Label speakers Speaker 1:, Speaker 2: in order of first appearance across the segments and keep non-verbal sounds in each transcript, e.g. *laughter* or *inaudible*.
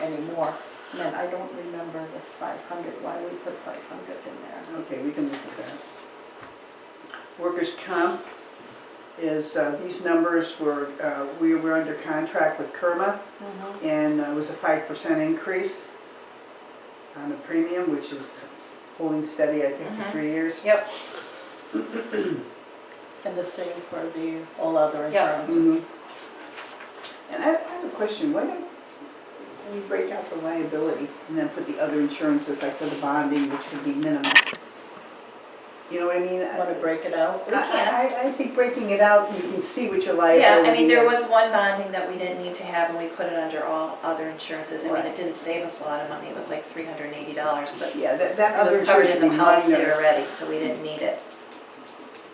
Speaker 1: anymore. And then I don't remember the five hundred, why we put five hundred in there.
Speaker 2: Okay, we can look at that. Workers' comp is, uh, these numbers were, uh, we were under contract with Kerma, and uh, it was a five percent increase on the premium, which is holding steady, I think, for
Speaker 3: Mhm.
Speaker 2: three years.
Speaker 3: Yep,
Speaker 1: And the same for the all other
Speaker 3: Yeah.
Speaker 1: insurances.
Speaker 2: Mhm. Mm-hmm. And I I have a question, why don't we break out the liability and then put the other insurances, like for the bonding, which would be minimal? You know what I mean?
Speaker 1: Want to break it out?
Speaker 3: We
Speaker 2: I-
Speaker 3: can.
Speaker 2: I, I think breaking it out, you can see what your
Speaker 3: yeah,
Speaker 2: liability is.
Speaker 3: I mean, there was one bonding that we didn't need to have and we put it under all other insurances. I mean,
Speaker 2: Right.
Speaker 3: it didn't save us a lot of money, it was like three hundred and eighty dollars, but it
Speaker 2: Yeah, that, that other
Speaker 3: was covered
Speaker 2: insurance
Speaker 3: in
Speaker 2: would be
Speaker 3: the policy
Speaker 2: minor.
Speaker 3: already, so we didn't need it.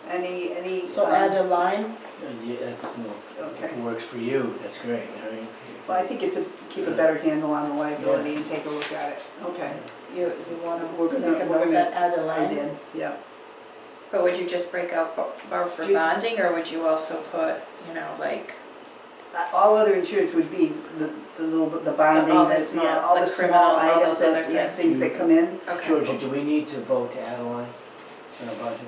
Speaker 2: Any, any,
Speaker 1: So
Speaker 2: um,
Speaker 1: add a line?
Speaker 4: And yeah, that's, you know, if
Speaker 2: Okay.
Speaker 4: it works for you, that's great, I mean. if-
Speaker 2: well, I think it's a, keep a better handle on the liability and take a look at it. Okay.
Speaker 1: You, you
Speaker 2: We're
Speaker 1: want to
Speaker 2: gonna-
Speaker 1: make a
Speaker 2: we're
Speaker 1: note
Speaker 2: gonna-
Speaker 1: that add a
Speaker 2: I
Speaker 1: line?
Speaker 2: did, yeah.
Speaker 3: But would you just break out bo- bar for
Speaker 2: Do you-
Speaker 3: bonding or would you also put, you know, like,
Speaker 2: Uh, All other insurance would be the, the little, bit- the bonding,
Speaker 3: all the
Speaker 2: that- yeah,
Speaker 3: small-
Speaker 2: all
Speaker 3: the
Speaker 2: the
Speaker 3: criminal,
Speaker 2: small
Speaker 3: all
Speaker 2: items,
Speaker 3: those
Speaker 2: that-
Speaker 3: other
Speaker 2: yeah,
Speaker 3: things.
Speaker 2: things that come in.
Speaker 3: okay,
Speaker 4: Georgia, do we need to vote to add a line in our budget?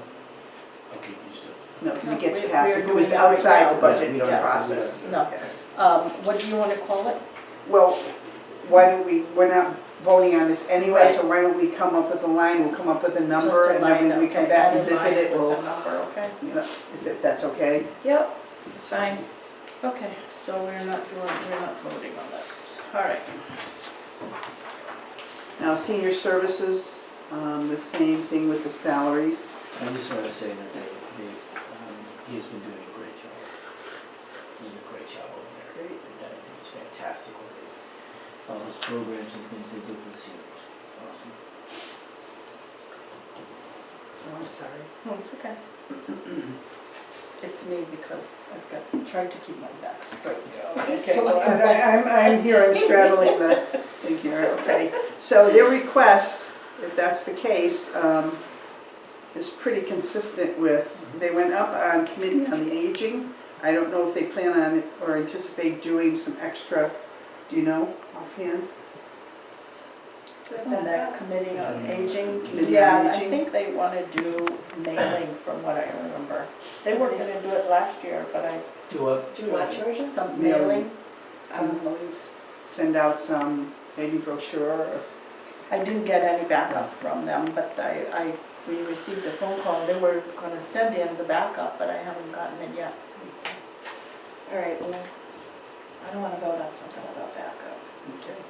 Speaker 4: Okay, you just do. it.
Speaker 2: No, it
Speaker 1: No,
Speaker 2: gets
Speaker 1: we-
Speaker 2: passed,
Speaker 1: we're
Speaker 2: if it was
Speaker 1: doing that right
Speaker 2: outside
Speaker 1: now.
Speaker 2: the
Speaker 4: Yeah,
Speaker 2: budget
Speaker 4: we don't have to do
Speaker 2: process.
Speaker 4: that.
Speaker 1: No.
Speaker 2: Okay.
Speaker 1: Um, what do you want to call it?
Speaker 2: Well, why don't we, we're not voting on this anyway,
Speaker 1: Right.
Speaker 2: so why don't we come up with a line, we'll come up with a
Speaker 1: Just
Speaker 2: number,
Speaker 1: a
Speaker 2: and then
Speaker 1: line,
Speaker 2: when we come
Speaker 1: okay,
Speaker 2: back
Speaker 1: add
Speaker 2: and
Speaker 1: a
Speaker 2: visit
Speaker 1: line
Speaker 2: it,
Speaker 1: with the
Speaker 2: we'll,
Speaker 1: number, okay?
Speaker 2: you know, is if that's okay.
Speaker 3: yep, it's fine.
Speaker 1: Okay, so we're not doing, we're not voting on this. All right.
Speaker 2: Now, senior services, um, the same thing with the salaries.
Speaker 4: I just wanna say that they, they, um, he has been doing a great job. Doing a great job over there.
Speaker 2: Great.
Speaker 4: And I think it's fantastic what they, all those programs and things they do for the seniors. Awesome.
Speaker 2: Oh, I'm sorry.
Speaker 1: No, it's okay. *clears throat* It's me because I've got, tried to keep my back *laughs* straight.
Speaker 2: Okay, well, I- I- I'm, I'm here, I'm straddling the thing here, okay. So their request, if that's the case, um, is pretty consistent with, they went up on committee on the aging. I don't know if they plan on or anticipate doing some extra, do you know, offhand?
Speaker 1: And that committee on aging,
Speaker 2: Committee on
Speaker 1: yeah, I
Speaker 2: Aging.
Speaker 1: think they want to do mailing from what I remember. They were gonna do it last year, but I,
Speaker 4: Do what?
Speaker 3: Do what, Georgia?
Speaker 1: some mailing, Um,
Speaker 2: Mailing.
Speaker 1: some mailing.
Speaker 2: Send out some, maybe brochure or
Speaker 1: I didn't get any backup from them, but I, I, we received a phone call, they were gonna send in the backup, but I haven't gotten it yet.
Speaker 3: All right, well, I don't wanna vote on something without backup.
Speaker 2: Okay.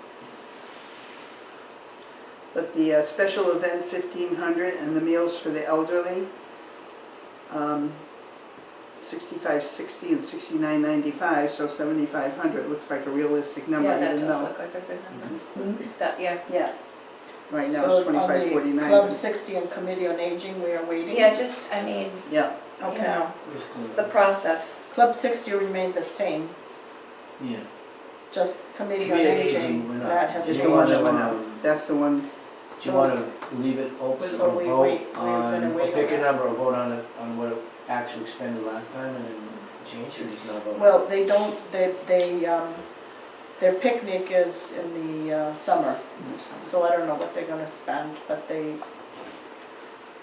Speaker 2: But the uh, special event fifteen hundred and the meals for the elderly, um, sixty-five sixty and sixty-nine ninety-five, so seventy-five hundred looks like a realistic number,
Speaker 3: Yeah, that
Speaker 2: even
Speaker 3: does
Speaker 2: though.
Speaker 3: look like a good
Speaker 4: Mm-hmm.
Speaker 3: number.
Speaker 1: Mm-hmm.
Speaker 3: That, yeah,
Speaker 2: Yeah. Right now
Speaker 3: um,
Speaker 1: So
Speaker 2: it's twenty-five
Speaker 1: On the Club
Speaker 2: forty-nine.
Speaker 1: 60 and Committee on Aging, we are waiting.
Speaker 3: yeah, just, I mean,
Speaker 2: Yeah,
Speaker 3: you
Speaker 1: Okay.
Speaker 3: know,
Speaker 4: Where's
Speaker 3: it's the
Speaker 4: Glenn?
Speaker 3: process.
Speaker 1: Club 60 remained the same,
Speaker 4: Yeah.
Speaker 1: just Committee on
Speaker 4: Committee on Aging
Speaker 1: Aging,
Speaker 4: went up.
Speaker 1: that has
Speaker 2: just
Speaker 4: Just
Speaker 2: the
Speaker 4: the
Speaker 2: one
Speaker 4: one
Speaker 1: changed.
Speaker 4: that
Speaker 2: that
Speaker 4: went
Speaker 2: went
Speaker 4: out.
Speaker 2: that's the one,
Speaker 4: Do you wanna leave it open
Speaker 1: So
Speaker 4: or
Speaker 1: we
Speaker 4: vote
Speaker 1: wait- we're
Speaker 4: on,
Speaker 1: gonna wait
Speaker 4: or pick
Speaker 1: on
Speaker 4: a
Speaker 1: it.
Speaker 4: number or vote on it, on what it actually expended last time and then change or just not vote?
Speaker 1: Well, they don't, they, they, um, their picnic is in the uh, summer, so I don't know what they're gonna spend, but they,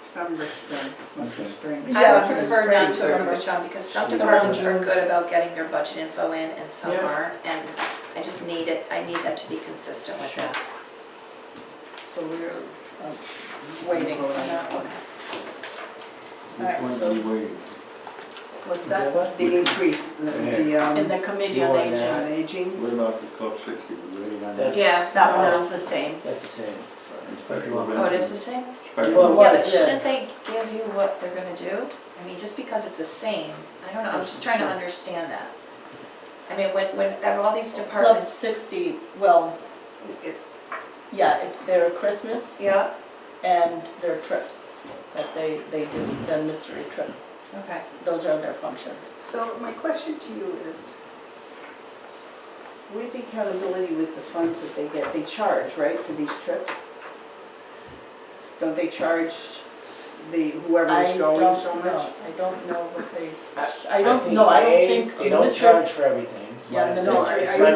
Speaker 2: summer spring, must be
Speaker 4: Okay.
Speaker 2: spring.
Speaker 3: I
Speaker 1: Yeah,
Speaker 3: would
Speaker 1: for the
Speaker 3: prefer not
Speaker 1: spring,
Speaker 3: to
Speaker 1: summer.
Speaker 3: approach on because some
Speaker 4: Summer.
Speaker 3: departments are good about getting their budget info in and some
Speaker 4: Yeah.
Speaker 3: aren't. And I just need it, I need that to be consistent with
Speaker 4: Sure.
Speaker 3: that.
Speaker 1: so we're um, waiting on that one. All right,
Speaker 5: Which one
Speaker 1: so-
Speaker 5: do you waiting?
Speaker 1: What's
Speaker 4: Yeah,
Speaker 1: that?
Speaker 4: what?
Speaker 2: The increase, the- the,
Speaker 1: In
Speaker 2: um,
Speaker 1: the Committee on
Speaker 4: More than
Speaker 1: Aging,
Speaker 4: that.
Speaker 2: on aging.
Speaker 5: What about the Club 60, we're waiting on that?
Speaker 4: That's- Yeah.
Speaker 1: that one is the same.
Speaker 4: That's the same.
Speaker 5: Inspector Levin.
Speaker 3: Oh, it is the same?
Speaker 4: Well,
Speaker 5: Inspector Levin.
Speaker 3: Yeah,
Speaker 4: what
Speaker 3: but
Speaker 4: is
Speaker 3: shouldn't they give you what they're gonna do? I mean, just because it's the same, I don't know, I'm just trying to understand that. I mean, when, when, of all these
Speaker 1: Club
Speaker 3: departments,
Speaker 1: 60, well,
Speaker 2: It-
Speaker 1: yeah, it's their Christmas
Speaker 3: yeah,
Speaker 1: and their trips that they, they do, the mystery trip.
Speaker 3: okay.
Speaker 1: Those are their functions.
Speaker 2: So my question to you is, where's the accountability with the funds that they get? They charge, right, for these trips? Don't they charge the, whoever
Speaker 1: I
Speaker 2: is
Speaker 1: don't
Speaker 2: going so
Speaker 1: know.
Speaker 2: much?
Speaker 1: I don't know what they, I don't know, I don't think.
Speaker 4: They don't
Speaker 1: Mr.
Speaker 4: charge for everything. is my
Speaker 1: Yeah, no,
Speaker 2: No,
Speaker 1: I-
Speaker 2: are
Speaker 4: understanding. It's
Speaker 2: you
Speaker 4: my